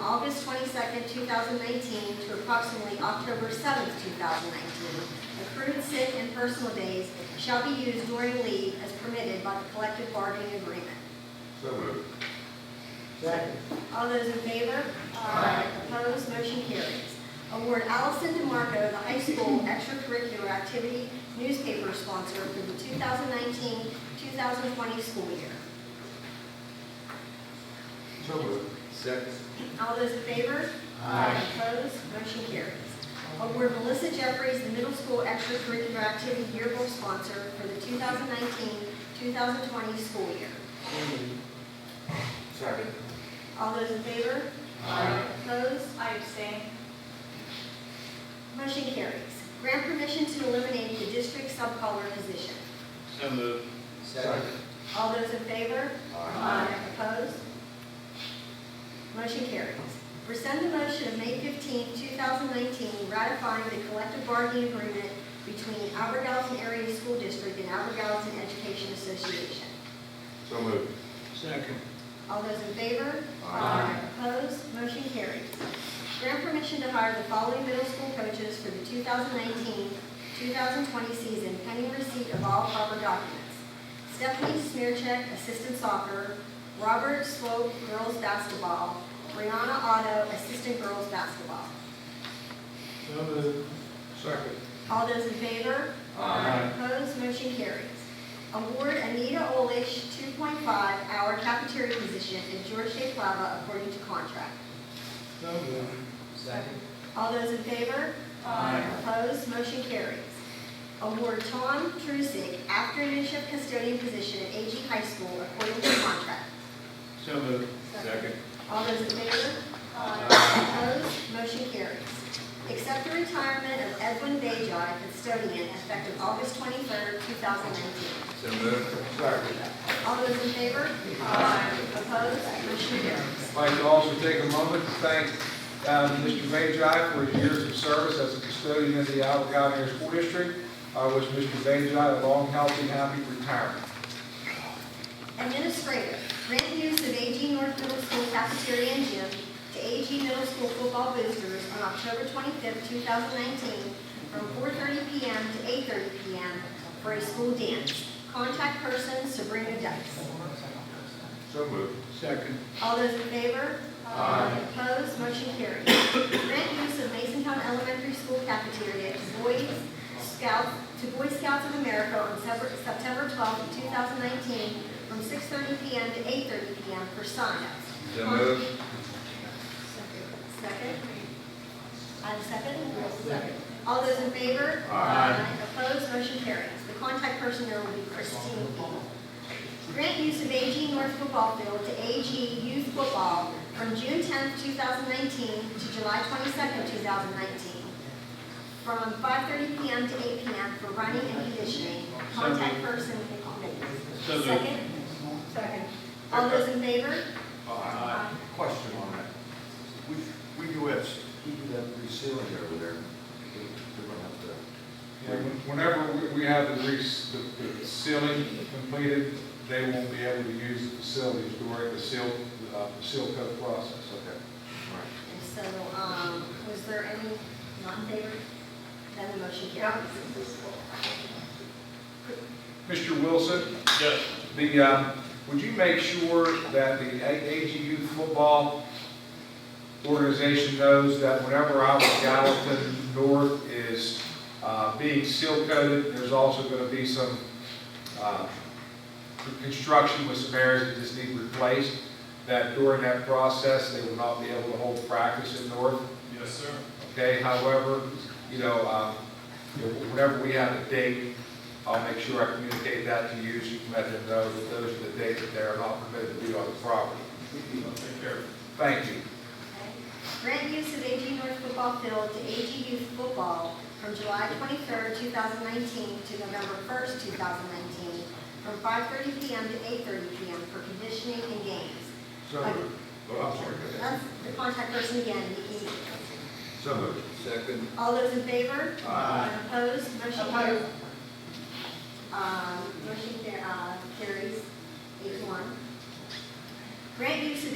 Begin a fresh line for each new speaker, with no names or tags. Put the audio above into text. August 22nd, 2019 to approximately October 7th, 2019. Accrued sick and personal days shall be used during leave as permitted by the collective bargaining agreement.
So moved.
second,
All those in favor? Aye. Opposed, motion carries. Award Allison DeMarco the high school extracurricular activity newspaper sponsor for the 2019-2020 school year.
So moved. Second.
All those in favor? Aye. Opposed? Motion carries. Award Melissa Jeffries the middle school extracurricular activity yearbook sponsor for the 2019-2020 school year.
so moved.
Second.
All those in favor? Aye. Opposed?
I abstain.
Motion carries. Grant permission to eliminate the district subcolor position.
So moved.
Second.
All those in favor?
Aye.
Opposed? Motion carries. Rescind the motion of May 15, 2019, ratifying the collective bargaining agreement between Albertson Area School District and Albertson Education Association.
So moved.
Second.
All those in favor?
Aye.
Opposed? Motion carries. Grant permission to hire the following middle school coaches for the 2019-2020 season pending receipt of all proper documents. Stephanie Smearcheck, assistant soccer, Robert Swope, girls basketball, Brianna Otto, assistant girls basketball.
So moved.
Second.
All those in favor?
Aye.
Opposed, motion carries. Award Anita Olish 2.5-hour cafeteria position at George J. Flava according to contract.
So moved. Second.
All those in favor?
Aye.
Opposed, motion carries. Award Tom Trusick afternoon shift custodian position at AG High School according to contract.
So moved.
Second.
All those in favor? Opposed, motion carries. Accept the retirement of Edwin Bajai, custodian, effective August 23rd, 2019.
So moved. Second.
All those in favor? Aye. Opposed? Motion carries.
I'd like to also take a moment to thank um, Mr. Bajai for his years of service as a custodian of the Allegany Area School District. I wish Mr. Bajai a long, healthy, happy retirement.
Administrator, grant use of AG North Middle School cafeteria and gym to AG Middle School football boosters on October 25th, 2019, from 4:30 PM to 8:30 PM for a school dance. Contact person Sabrina Dykes.
So moved.
Second.
All those in favor? Aye. Opposed, motion carries. Grant use of Masontown Elementary School cafeteria to Boy Scouts, to Boy Scouts of America on September- September 12th, 2019, from 6:30 PM to 8:30 PM for signups.
So moved.
Second? I have a second? Second. All those in favor? Aye. Opposed, motion carries. The contact person there will be Christine Engel. Grant use of AG North Football Field to AG Youth Football from June 10th, 2019 to July 22nd, 2019, from 5:30 PM to 8 PM for running and conditioning. Contact person Nicole Mingus.
So moved.
Second? Second. All those in favor?
Aye. Question on that. We, we do have, we do have resealing over there. We're gonna have to.
And Whenever we- we have the re- the the sealing completed, they won't be able to use the facilities during the seal, uh, the seal coat process.
Okay. All right.
And so, um, was there any non-favor? Then the motion carries.
Mr. Wilson?
Yes.
The, um, would you make sure that the A- AG Youth Football Organization knows that whenever Alpha Gallatin North is uh, being seal coated, there's also going to be some uh, construction with some areas that just need replaced, that during that process, they will not be able to hold practice in North?
Yes, sir.
Okay, however, you know, um, you know, whenever we have a date, I'll make sure I communicate that to you, so you can let them know that those are the dates that they're not permitted to be on the property.
Take care.
Thank you.
Okay. Grant use of AG North Football Field to AG Youth Football from July 23rd, 2019 to November 1st, 2019, from 5:30 PM to 8:30 PM for conditioning and games.
So moved. Oh, I'm sorry. go ahead.
That's the contact person again, Nikki.
So moved. Second.
All those in favor?
Aye.
Opposed, motion carries. Um, motion ca- uh, carries, eight to one. Grant use of